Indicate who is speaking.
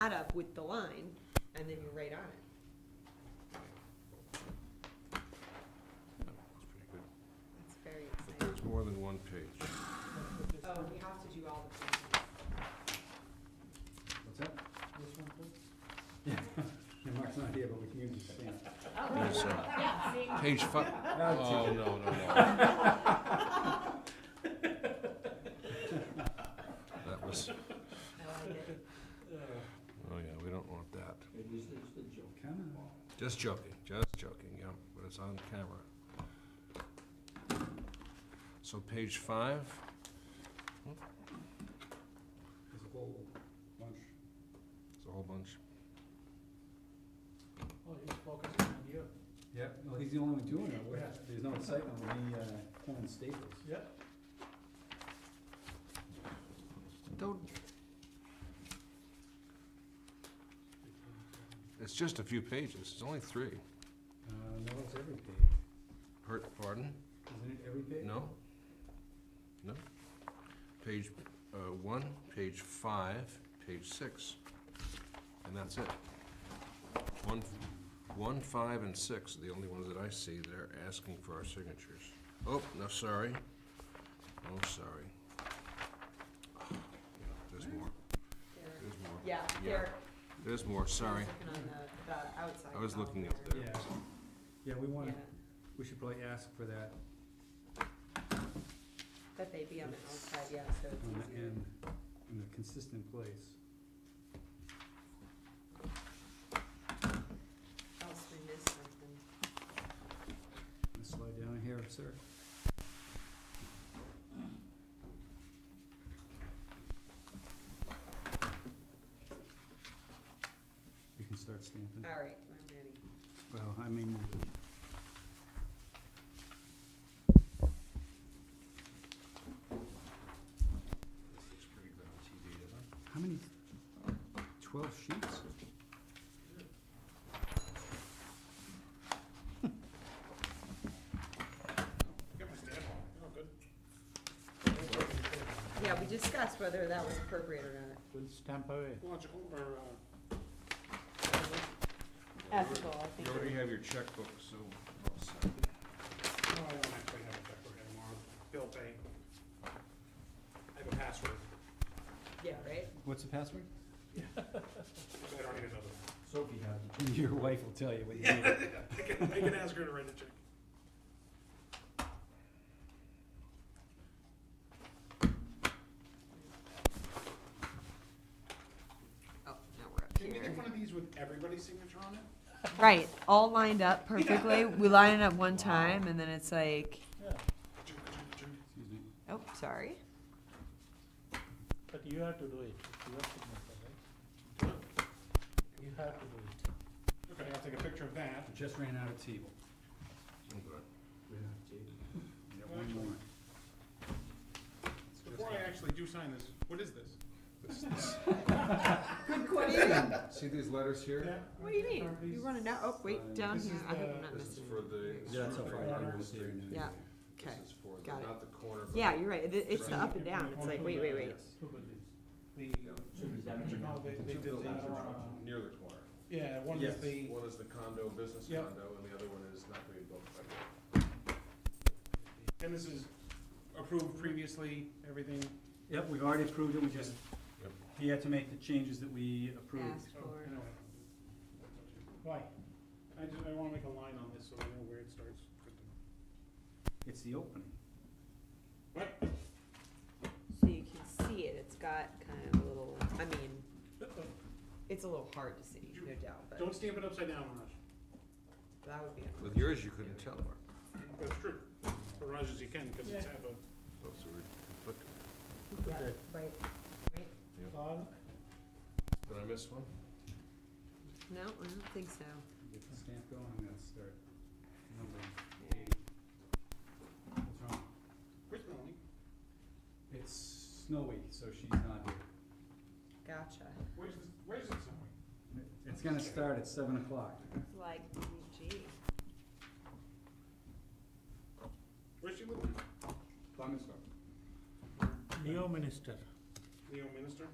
Speaker 1: cut up with the line, and then you're right on it.
Speaker 2: That's pretty good.
Speaker 1: That's very
Speaker 2: But
Speaker 1: exciting.
Speaker 2: there's more than one page.
Speaker 1: Oh, we have to do all the.
Speaker 3: What's that? Yeah, yeah, Mark's not here, but we can use his stamp.
Speaker 2: Yes, sir.
Speaker 1: yeah,
Speaker 2: Page five.
Speaker 3: No, it's
Speaker 2: Oh, no, no, no. That was,
Speaker 1: I like it.
Speaker 2: oh yeah, we don't want that.
Speaker 4: It was, it was a joke.
Speaker 3: Come on.
Speaker 2: Just joking, just joking, yeah, but it's on camera. So page five,
Speaker 3: There's a whole bunch.
Speaker 2: it's a whole bunch.
Speaker 4: Oh, you focused on you.
Speaker 3: Yeah. Well, he's the only one doing it, We're- there's no excitement when he, uh, pulling staples.
Speaker 4: Yeah.
Speaker 2: Don't, it's just a few pages, it's only three.
Speaker 3: Uh, no, it's every page,
Speaker 2: Hurt, pardon?
Speaker 3: isn't it every page?
Speaker 2: No? No? Page, uh, one, page five, page six, and that's it. One, one, five, and six are the only ones that I see that are asking for our signatures. Oh, no, sorry. Oh, sorry. Yeah, There's more,
Speaker 1: There-
Speaker 2: there's more.
Speaker 1: Yeah,
Speaker 2: Yeah.
Speaker 1: there.
Speaker 2: There's more, sorry.
Speaker 1: I was looking on the, the outside. column
Speaker 2: I was looking up there.
Speaker 3: Yeah, yeah, we
Speaker 1: Yeah,
Speaker 3: wanna, we should probably ask for that
Speaker 1: that they be on the outside, yeah, so
Speaker 3: on
Speaker 1: it's
Speaker 3: the
Speaker 1: easier.
Speaker 3: end, in a consistent place.
Speaker 1: Else we miss something.
Speaker 3: Let's slide down here, sir. You can start stamping.
Speaker 1: All right, I'm ready.
Speaker 3: Well, I mean. How many? Twelve sheets?
Speaker 1: Yeah, we discussed whether that was appropriate or not.
Speaker 4: With stamp away.
Speaker 5: Logical or, uh,
Speaker 1: Ethical, I
Speaker 2: You already have your checkbook, so, all set.
Speaker 5: no, I don't actually have a checkbook anymore, bill pay. I have a password,
Speaker 1: Yeah, right?
Speaker 3: What's the password?
Speaker 5: so I don't need another one.
Speaker 3: Sophie has it. Your wife will tell you what you need.
Speaker 5: I can, I can ask her to write a check.
Speaker 1: Oh, now we're up
Speaker 5: Can we get one of these with everybody's signature on it?
Speaker 1: Right, all lined up perfectly. We line it up one time and then it's like,
Speaker 5: Ka-ching, ka-ching, ka-ching.
Speaker 3: Excuse me.
Speaker 1: oh, sorry.
Speaker 4: But you have to do it, it's your signature, right? You have to do it.
Speaker 5: Okay, I'll take a picture of that.
Speaker 3: I Just ran out of table.
Speaker 2: I'm good.
Speaker 3: Ran out of table. Got one more.
Speaker 5: Before I actually do sign this, what is this?
Speaker 1: Good question.
Speaker 2: See these letters here?
Speaker 1: What do you mean? You wanna know? Oh, wait, down
Speaker 5: This
Speaker 1: here.
Speaker 5: is
Speaker 1: I hope I'm
Speaker 5: the-
Speaker 1: not
Speaker 2: This is
Speaker 1: missing.
Speaker 2: for the.
Speaker 3: Yeah, that's how
Speaker 5: all
Speaker 3: far
Speaker 5: right.
Speaker 3: I am with you.
Speaker 1: Yeah.
Speaker 2: This
Speaker 1: Okay.
Speaker 2: is for the,
Speaker 1: got it.
Speaker 2: not the corner, but.
Speaker 1: Yeah, you're right. It- It's the
Speaker 2: Right.
Speaker 1: up and down. It's like, wait, wait, wait.
Speaker 4: Two buildings. The,
Speaker 2: Yeah.
Speaker 4: no, they, they
Speaker 2: Two
Speaker 4: did
Speaker 2: buildings
Speaker 4: the,
Speaker 2: are
Speaker 4: uh,
Speaker 2: drawn near the corner.
Speaker 4: yeah, one is
Speaker 3: Yes.
Speaker 4: the,
Speaker 2: One is the condo, business
Speaker 4: Yeah.
Speaker 2: condo, and the other one is not being built. by the-
Speaker 5: And this is approved previously, everything?
Speaker 3: Yep, we've already approved it, we just,
Speaker 2: Yep.
Speaker 3: he had to make the changes that we approved.
Speaker 1: Ask
Speaker 5: Oh,
Speaker 1: for
Speaker 5: I know. Why? I just, I wanna make a line on this so I know where it starts.
Speaker 3: It's the opening.
Speaker 5: What?
Speaker 1: so you can see it. It's got kind of a little, I mean, it's a little hard to see, no doubt, but
Speaker 5: Don't stamp it upside down, Raj.
Speaker 1: that would be.
Speaker 2: With yours, you couldn't tell, Mark.
Speaker 5: That's true. For Raj as you can, because it's half a.
Speaker 2: Those were conflicting.
Speaker 1: Yeah,
Speaker 4: Okay.
Speaker 1: right, right.
Speaker 4: all,
Speaker 2: Did I miss one?
Speaker 1: No, I don't think so.
Speaker 3: Get the stamp going, I'm gonna start numbering. What's wrong?
Speaker 5: Where's Melanie?
Speaker 3: It's snow week, so she's not here.
Speaker 1: Gotcha.
Speaker 5: Where's this, where's this somewhere?
Speaker 3: It's gonna start at seven o'clock.
Speaker 1: It's like, gee.
Speaker 5: Where's she living?
Speaker 4: Leo Minister.
Speaker 5: Leo Minister?